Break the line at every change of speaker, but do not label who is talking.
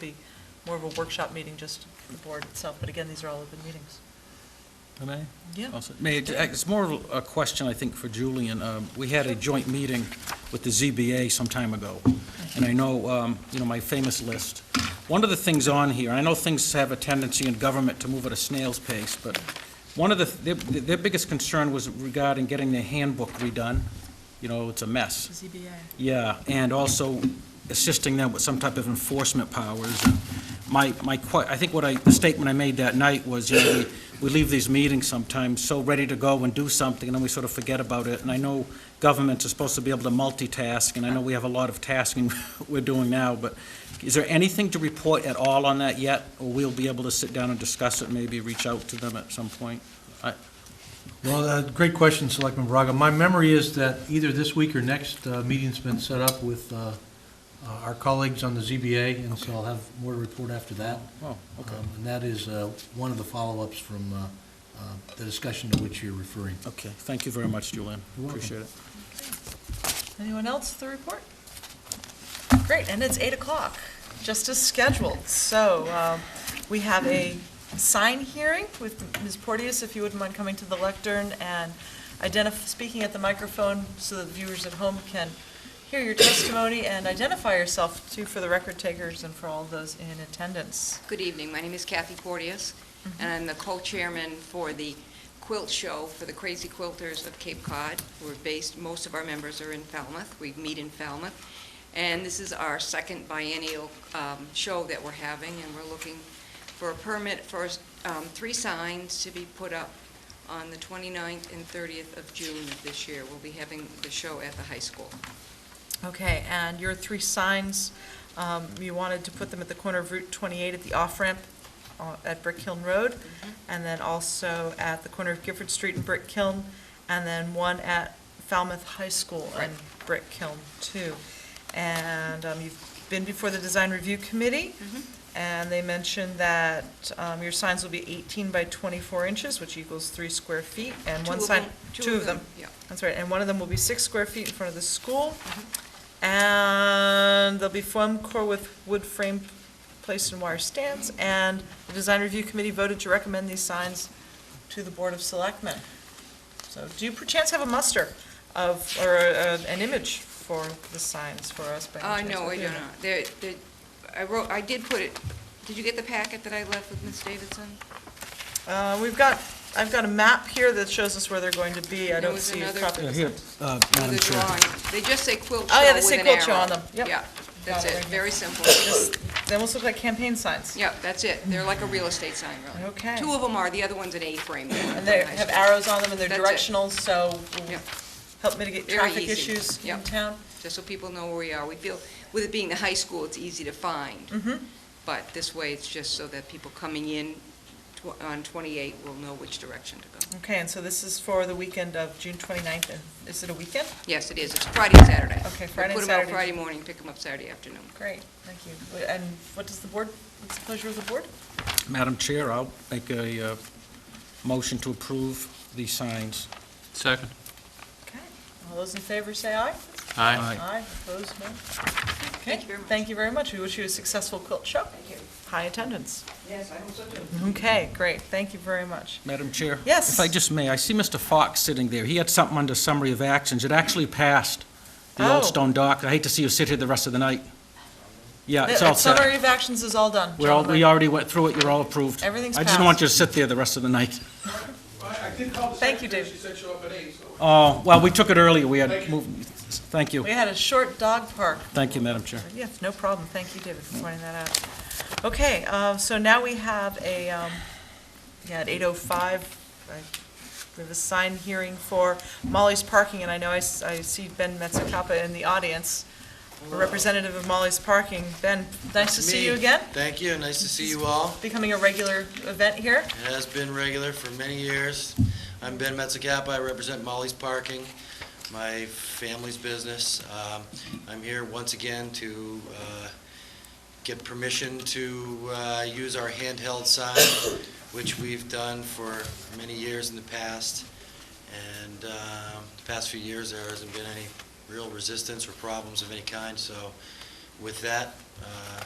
be more of a workshop meeting, just the board itself, but again, these are all open meetings.
Can I?
Yeah.
Also- May, I ju- it's more of a question, I think, for Julian. Um, We had a joint meeting with the ZBA some time ago, and I know, um, you know, my famous list. One of the things on here, I know things have a tendency in government to move at a snail's pace, but one of the, their- their biggest concern was regarding getting their handbook redone. You know, it's a mess.
ZBA.
Yeah, and also assisting them with some type of enforcement powers. And My, my, que- I think what I, the statement I made that night was, you know, we, we leave these meetings sometimes so ready to go and do something, and then we sort of forget about it. And I know governments are supposed to be able to multitask, and I know we have a lot of tasking we're doing now, but is there anything to report at all on that yet? Or we'll be able to sit down and discuss it, maybe reach out to them at some point?
Well, uh, great question, Selectman Braga. My memory is that either this week or next, uh, meeting's been set up with uh, uh, our colleagues on the ZBA, and so I'll have more to report after that.
Oh, okay,
Um, And that is uh, one of the follow-ups from uh, uh, the discussion to which you're referring.
okay. Thank you very much, Julian.
You're welcome.
Appreciate it.
Anyone else with the report? Great, and it's eight o'clock, just as scheduled. So um, we have a sign hearing with Ms. Porteous, if you wouldn't mind coming to the lectern and identif, speaking at the microphone so that viewers at home can hear your testimony and identify yourself too for the record takers and for all those in attendance.
Good evening. My name is Kathy Porteous,
Mm-hmm.
and I'm the co-chairman for the quilt show for the Crazy Quilters of Cape Cod. We're based, most of our members are in Falmouth. We meet in Falmouth. And this is our second biennial um, show that we're having, and we're looking for a permit for um, three signs to be put up on the 29th and 30th of June of this year. We'll be having the show at the high school.
Okay, and your three signs, um, you wanted to put them at the corner of Route 28 at the off-ramp uh, at Brick Hill Road, and then also at the corner of Gifford Street and Brick Hill, and then one at Falmouth High School and Brick Hill too. And um, you've been before the Design Review Committee, and they mentioned that um, your signs will be 18 by 24 inches, which equals three square feet, and
Two
one
of
sign,
them-
two of them.
Yeah.
That's right, and one of them will be six square feet in front of the school.
Mm-hmm.
And there'll be foam core with wood frame placed in wire stands. And the design review committee voted to recommend these signs to the Board of Selectmen. So do you perchance have a muster of, or uh, an image for the signs for us? by
Uh,
any chance?
no,
Do
I do
you?
not. There, there, I wrote, I did put it, did you get the packet that I left with Ms. Davidson?
Uh, We've got, I've got a map here that shows us where they're going to be. I
There
don't
was
see a
another-
copy.
Yeah,
of
here,
this.
uh,
With
Madam
the
Chair.
drawing. They just say quilt show
Oh,
with an
yeah,
arrow.
they say quilt show on them. Yep.
Yeah, that's
it right
it,
here.
very simple.
They almost look like campaign signs.
Yeah, that's it. They're like a real estate sign, really.
Okay.
Two of them are, the other one's an A-frame.
And they have arrows on them and they're
That's it.
directional, so will
Yep.
help mitigate
Very
traffic
easy.
issues in
Yep.
town.
Just so people know where we are. We feel, with it being the high school, it's easy to find.
Mm. Mm-hmm.
But this way, it's just so that people coming in tw- on 28 will know which direction to go.
Okay, and so this is for the weekend of June 29th, and is it a weekend?
Yes, it is. It's Friday and Saturday.
Okay,
We
Friday and
Put them out
Saturday.
Friday morning, pick them up Saturday afternoon.
Great, thank you. And what does the board, what's the pleasure of the board?
Madam Chair, I'll make a uh, motion to approve these signs.
Second.
Okay, all those in favor say aye.
Aye.
Aye, opposed, no?
Thank you very much.
Thank you very much. We wish you a successful quilt show.
Thank you.
High attendance.
Yes, I hope so too.
Okay, great, thank you very much.
Madam Chair?
Yes.
If I just may, I see Mr. Fox sitting there. He had something under summary of actions. It actually passed the Old
Oh.
Stone Dock. I hate to see you sit here the rest of the night. Yeah, it's
The-
all
Summary
set.
of actions is all done.
We're all,
gentlemen.
we already went through it. You're all approved.
Everything's
I just don't want
passed.
you to sit there the rest of the night.
Thank you, David.
Oh, well, we took it earlier. We had moved, thank you.
We had a short dog park
Thank you, Madam Chair.
Yes, no problem. Thank you, David, for pointing that out. Okay, uh, so now we have a, um, yeah, at eight oh five, we have a sign hearing for Molly's Parking, and I know I, s- I see Ben Metzakappa in the audience, a representative of Molly's Parking. Ben, nice to see you
Me.
again,
Thank you, nice to see you all.
becoming a regular event here.
It has been regular for many years. I'm Ben Metzakappa, I represent Molly's Parking, my family's business. Um, I'm here once again to uh, get permission to uh, use our handheld sign, which we've done for many years in the past. And um, the past few years, there hasn't been any real resistance or problems of any kind, so with that, uh,